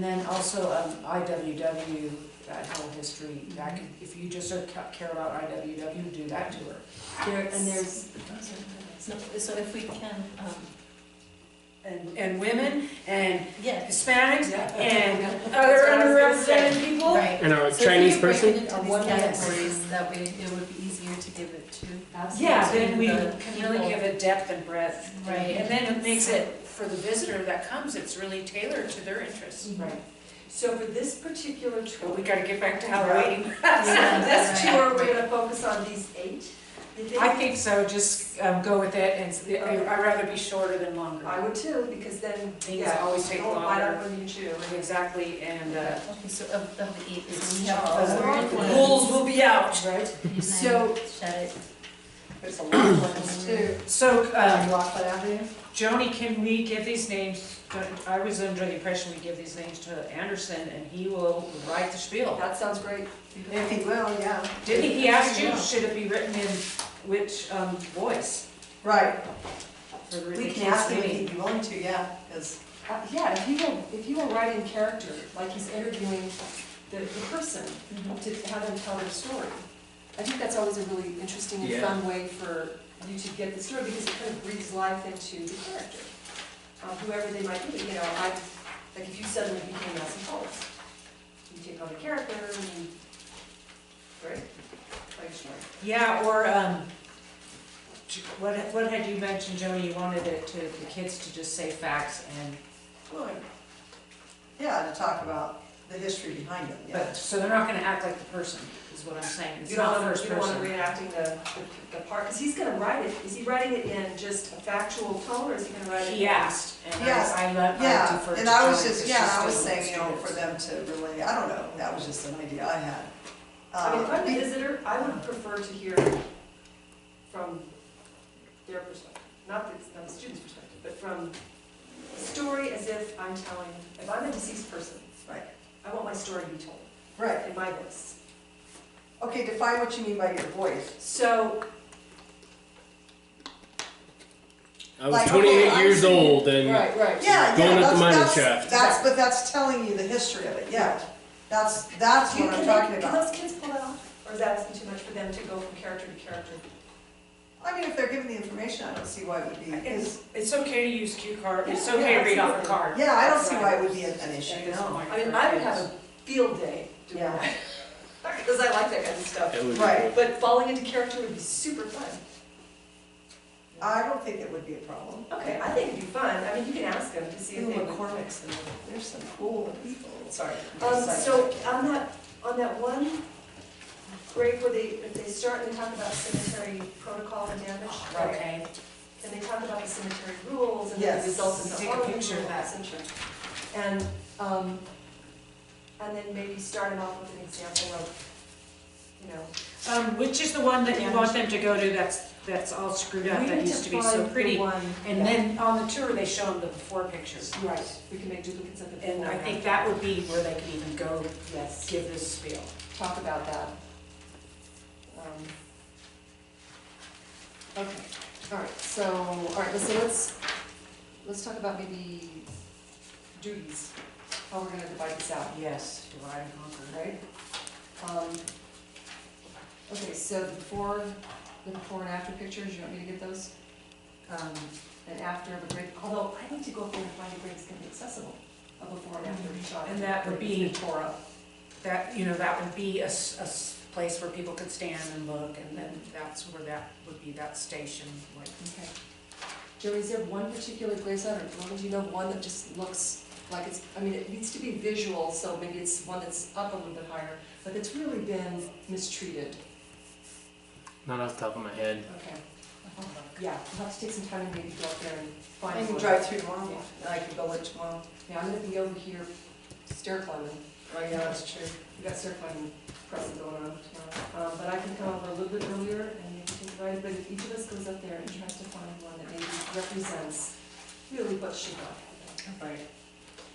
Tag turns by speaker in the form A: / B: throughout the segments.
A: And then also um, IWW, that whole history, that could, if you just don't ca- care about IWW, do that to her.
B: There, and there's, so so if we can, um,
C: and, and women and
B: yeah.
C: Hispanics and other
B: That's what I was gonna
C: underrepresented people.
B: Right.
D: And a
B: So if
D: Chinese
B: you break
D: person?
B: it into
A: A
B: these
A: one yes.
B: categories, that way it would be easier to give it to.
C: Yeah, then we
B: to
C: can
B: the
C: really
B: people.
C: give it depth and breadth.
B: Right.
C: And then it makes it, for the visitor that comes, it's really tailored to their interests.
A: Right.
E: So for this particular
C: But
E: tour,
C: we gotta get back to Halloween.
B: Yeah,
E: this
B: right.
E: tour, we're gonna focus on these eight? you think?
C: I think so, just um, go with it and s- I- I'd rather be shorter than longer.
E: I would too, because then,
C: Things
E: yeah, oh,
C: always take
E: don't bite
C: longer.
E: up when you chew.
C: Exactly, and uh,
B: Okay, so of the eight, so we
C: it's-
B: have
C: uh,
B: awareness.
C: the rules will be out. Right.
B: And then
C: So-
B: Shut it.
E: There's a lot of ones too.
C: So, um,
A: Rockland Avenue?
C: Joni, can we give these names, I was under the impression we give these names to Anderson and he will write the spiel.
E: That sounds great.
A: If he will, yeah.
C: Didn't he ask you, should it be written in which um, voice?
A: Right,
C: for the
A: we can
C: kids'
A: ask him if
C: meeting?
A: he'd be willing to, yeah, 'cause-
E: Uh, Yeah, if you will, if you will write in character, like he's interviewing the, the person,
B: Mm-hmm.
E: to have them tell their story. I think that's always a really interesting and
F: Yeah.
E: fun way for you to get the story, because it kind of breathes life into the character. Um, Whoever they might be, you know, I, like if you suddenly became Nelson Foltz, you take on the character and you, right? Like, sure.
C: Yeah, or, um, j- what, what had you mentioned, Joni, you wanted it to, the kids to just say facts and,
A: Well, yeah, to talk about the history behind it, yeah.
C: but, so they're not gonna act like the person, is what I'm saying, it's
E: You don't
C: not
E: want,
C: first
E: you don't want
C: person.
E: reenacting the, the the part, because he's gonna write it, is he writing it in just a factual tone, or is he gonna write it?
C: He asked, and
A: Yes,
C: I, I let, I
A: Yeah,
C: deferred to
A: and I was
C: Joni,
A: just,
C: 'cause
A: yeah,
C: she's
A: I was
C: still
A: saying, you know,
C: students.
A: for them to relay, I don't know, that was just an idea I had.
E: I mean, if
A: Uh,
E: I'm a visitor, I would prefer to hear from their perspective, not the, not the student's perspective, but from the story as if I'm telling, if I'm a deceased person.
A: Right.
E: I want my story to be told
A: Right,
E: in my voice.
A: okay, define what you mean by your voice.
E: So,
D: I was
A: Like,
D: 28
A: okay, I'm
D: years
A: seeing-
D: old and
E: right, right.
A: Yeah,
D: Going up
A: yeah,
D: the
A: that's-
D: minor
A: that's-
D: shaft.
A: That's, but that's telling you the history of it, yeah. That's, that's
E: Do you-
A: what
E: can
A: I'm
E: they-
A: talking
E: Can
A: about.
E: those kids pull that off, or is that asking too much for them to go from character to character?
A: I mean, if they're given the information, I don't see why it would be,
C: It's, it's okay to use cue card, it's
E: Yeah,
C: okay
E: yeah,
C: to read off a card.
A: yeah, I don't see why it would be an an issue, no.
E: I mean, I would have a field day doing
A: Yeah.
E: that, because I like that kind of stuff.
D: It would be
A: Right.
E: But falling into character would be super fun.
A: I don't think it would be a problem.
E: Okay, I think it'd be fun, I mean, you can ask them to see if
A: Even
E: they would.
A: McCormick's, and there's some cool people, sorry.
E: Um, so on that, on that one break where they, if they start and they talk about cemetery protocol and damage, right?
C: Okay,
E: And they talk about the cemetery rules and the
A: Yes.
E: results of the
C: Take a
E: Harlem
C: picture of
E: rule,
C: that.
E: essentially. And, um, and then maybe start it off with an example of, you know,
C: um, which is the one that you want them to go to that's, that's all screwed up,
E: we
C: that
E: need
C: used
E: to
C: to be
E: find
C: so
E: the
C: pretty?
E: one-
C: And
E: yeah.
C: then on the tour, they show them the before pictures.
E: Right, we can make duplicates of the.
C: And I
E: form.
C: think that would be where they could even go
E: Yes,
C: give this spiel.
E: talk about that. Um, Okay, all right, so, all right, let's, so let's, let's talk about maybe duties, how we're gonna divide this out,
C: Yes, divide and conquer.
E: right? Um, Okay, so the before, the before and after pictures, you want me to get those? Um, And after of a break, although I need to go up there and find a break that's gonna be accessible, a before and after shot.
C: And that would be-
E: Torah.
C: That, you know, that would be a, s- a s- place where people could stand and look, and then that's where that would be, that station, like,
E: Okay. Jerry, is there one particular Grace Island, or Norman, do you know one that just looks like it's, I mean, it needs to be visual, so maybe it's one that's up a little bit higher, but it's really been mistreated.
D: Not off the top of my head.
E: Okay. Yeah, we'll have to take some time and maybe go up there and
A: I
E: find
A: can
E: one.
A: drive through tomorrow, and I can go in tomorrow.
E: Yeah, I'm gonna be over here stair climbing.
A: Oh, yeah, that's true.
E: We've got stair climbing press going on tomorrow. Um, but I can come over a little bit earlier and maybe take a ride, but if each of us goes up there and tries to find one that maybe represents really what should go.
A: Right.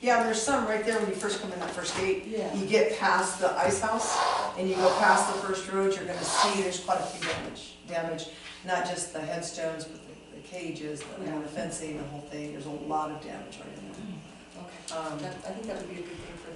A: Yeah, and there's some right there when you first come in that first gate.
E: Yeah.
A: You get past the ice house and you go past the first road, you're gonna see there's quite a few damage, damage. Not just the headstones, but the- the cages, the you know, the fencing, the whole thing, there's a lot of damage right there.
E: Okay. Um, that, I think that would be a good thing